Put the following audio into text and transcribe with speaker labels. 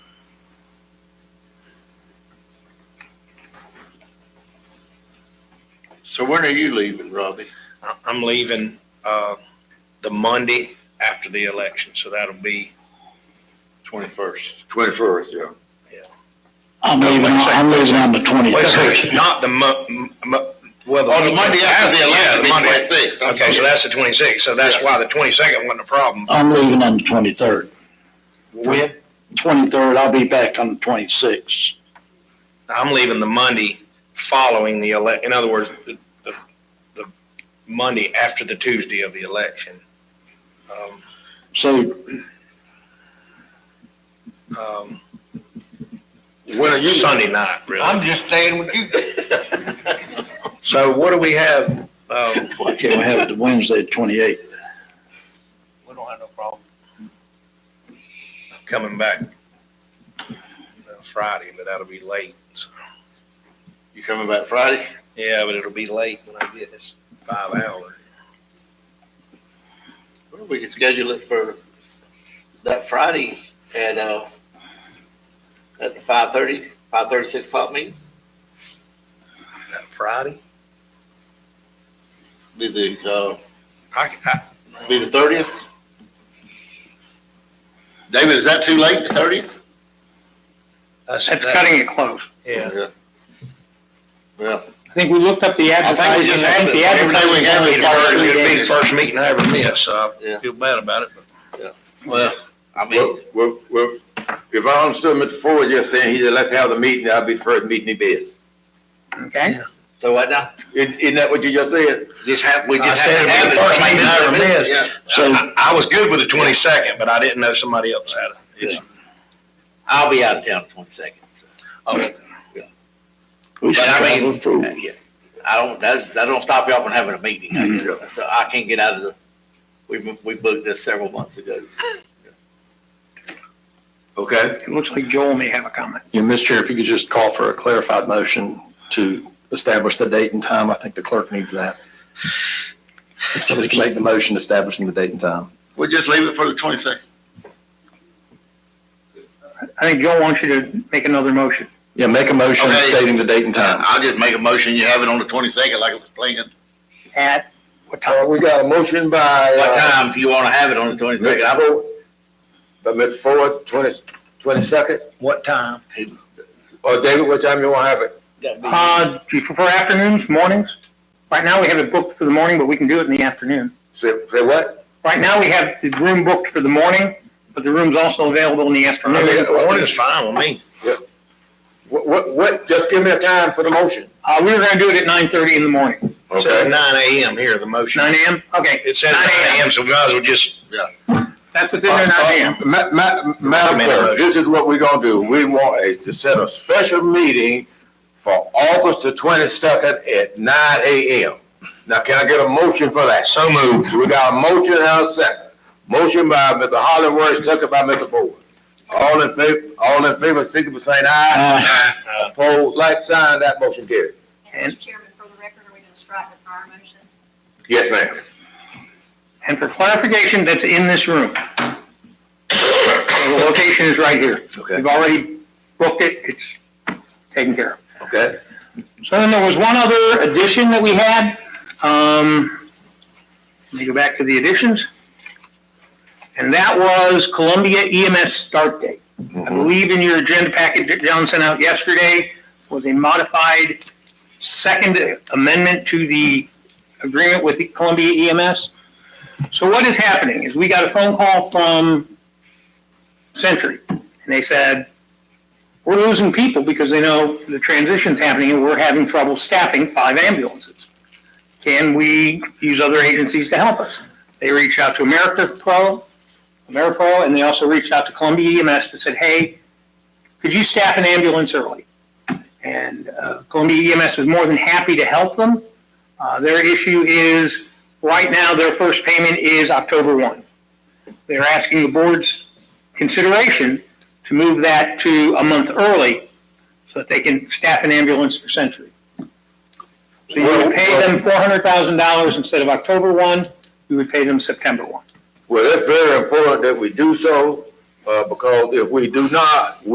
Speaker 1: So when are you leaving, Robbie?
Speaker 2: I- I'm leaving uh, the Monday after the election, so that'll be,
Speaker 1: Twenty-first.
Speaker 3: Twenty-first, yeah.
Speaker 4: I'm leaving, I'm leaving on the
Speaker 2: wait a
Speaker 4: twenty-third.
Speaker 2: second, not the mo, m- mo- well.
Speaker 1: Oh, the Monday after the
Speaker 2: Yeah,
Speaker 1: election,
Speaker 2: the
Speaker 1: be
Speaker 2: Monday.
Speaker 1: twenty-sixth.
Speaker 2: Okay, so that's the twenty-sixth, so that's why the twenty-second wasn't a problem.
Speaker 4: I'm leaving on the twenty-third.
Speaker 2: When?
Speaker 4: Twenty-third, I'll be back on the twenty-sixth.
Speaker 2: I'm leaving the Monday following the ele, in other words, the, the, the Monday after the Tuesday of the election. Um,
Speaker 4: So
Speaker 2: um,
Speaker 3: When are you?
Speaker 2: Sunday night, really.
Speaker 3: just staying with you.
Speaker 2: So what do we have? um,
Speaker 4: why can't we have it the Wednesday, twenty-eighth?
Speaker 3: We don't have no problem.
Speaker 2: coming back uh, Friday, but that'll be late. so.
Speaker 1: You coming back Friday?
Speaker 2: Yeah, but it'll be late when I get this five hours.
Speaker 1: Well, we can schedule it for that Friday at, uh, at the five-thirty, five-thirty, six o'clock meeting.
Speaker 2: That Friday?
Speaker 1: Be the, uh,
Speaker 2: I, I,
Speaker 1: be the thirtieth. David, is that too late, the thirtieth?
Speaker 2: that's,
Speaker 5: That's
Speaker 2: that-
Speaker 5: cutting it close.
Speaker 2: Yeah.
Speaker 1: Well,
Speaker 5: I think we looked up the advertising, I think the
Speaker 1: Every day we have
Speaker 2: It'll be
Speaker 1: it.
Speaker 5: advertising.
Speaker 2: the first- it'll be the first meeting I ever miss, so
Speaker 1: Yeah.
Speaker 2: I feel bad about it. but
Speaker 1: well, I mean,
Speaker 3: Well, well, well, if I understood Mr. Ford yesterday, he said, let's have the meeting, I'll be the first meeting he bids.
Speaker 5: Okay,
Speaker 1: so what now?
Speaker 3: Isn't, isn't that what you just said?
Speaker 1: Just have, we
Speaker 2: I
Speaker 1: just
Speaker 2: said
Speaker 1: have to
Speaker 2: it'd be
Speaker 1: have
Speaker 2: the
Speaker 1: it.
Speaker 2: first meeting I ever missed.
Speaker 1: Yeah.
Speaker 4: So
Speaker 2: I, I was good with the twenty-second, but I didn't know somebody else had it. It's-
Speaker 1: I'll be out of town twenty-second.
Speaker 2: oh,
Speaker 4: we should
Speaker 1: But I
Speaker 4: have
Speaker 1: mean-
Speaker 4: a food.
Speaker 1: Yeah, I don't, that, that don't stop y'all from having a meeting. I guess.
Speaker 3: Mhm.
Speaker 1: So I can't get out of the, we, we booked this several months ago.
Speaker 3: Okay,
Speaker 5: it looks like Joel may have a comment.
Speaker 6: Yeah, Mr. Chair, if you could just call for a clarified motion to establish the date and time, I think the clerk needs that. If somebody can make the motion establishing the date and time.
Speaker 1: We'll just leave it for the twenty-second.
Speaker 5: I think Joel wants you to make another motion.
Speaker 6: Yeah, make a motion
Speaker 1: Okay.
Speaker 6: stating the date and time.
Speaker 1: I'll just make a motion, you have it on the twenty-second like it was planned.
Speaker 5: At what
Speaker 3: uh,
Speaker 5: time?
Speaker 3: we got a motion by.
Speaker 1: What
Speaker 3: uh,
Speaker 1: time do you wanna have it on the twenty-second?
Speaker 3: Mr.
Speaker 1: I'm,
Speaker 3: Ford, by Mr. Ford, twenty, twenty-second,
Speaker 2: What time?
Speaker 3: or David, what time you wanna have it?
Speaker 5: Uh, do you prefer afternoons, mornings? Right now, we have it booked for the morning, but we can do it in the afternoon.
Speaker 3: Say, say what?
Speaker 5: Right now, we have the room booked for the morning, but the room's also available in the
Speaker 2: I mean,
Speaker 5: afternoon.
Speaker 2: the morning's fine with me.
Speaker 3: What, what, what, just give me a time for the motion.
Speaker 5: Uh, we were gonna do it at nine thirty in the morning.
Speaker 2: It says nine AM here, the motion.
Speaker 5: Nine AM? Okay,
Speaker 2: It says nine AM, so we might as well just
Speaker 5: that's what's in there, nine AM.
Speaker 3: Uh, Ma- ma- Madam Clerk, this is what we're gonna do. We want a- to set a special meeting for August the twenty-second at nine AM. Now, can I get a motion for that? So moved. We got a motion and a second. Motion by Mr. Hollingworth, second by Mr. Ford. All in favor, all in favor, signify by saying aye. Opposed, like sign, that motion carried.
Speaker 5: And-
Speaker 7: Mr. Chairman, for the record, are we going to strike the prior motion?
Speaker 3: Yes, ma'am.
Speaker 5: And for clarification, that's in this room. So The location is right here.
Speaker 3: Okay,
Speaker 5: We've already booked it, it's taken care of.
Speaker 3: okay.
Speaker 5: So then there was one other addition that we had. Um, let me go back to the additions. And that was Columbia EMS start date. I
Speaker 3: Mm-hmm.
Speaker 5: believe in your agenda packet that John sent out yesterday was a modified second amendment to the agreement with the Columbia E EMS. So what is happening is we got a phone call from Century and they said, we're losing people because they know the transition's happening and we're having trouble staffing five ambulances. Can we use other agencies to help us? They reached out to America Pro, AmeriPro, and they also reached out to Columbia E EMS and said, hey, could you staff an ambulance early? And uh, Columbia EMS was more than happy to help them. Uh, Their issue is, right now, their first payment is October 1. They're asking the board's consideration to move that to a month early so that they can staff an ambulance for Century. So you would pay them four hundred thousand dollars instead of October one, you would pay them September one.
Speaker 3: Well, it's very important that we do so, uh, because if we do not,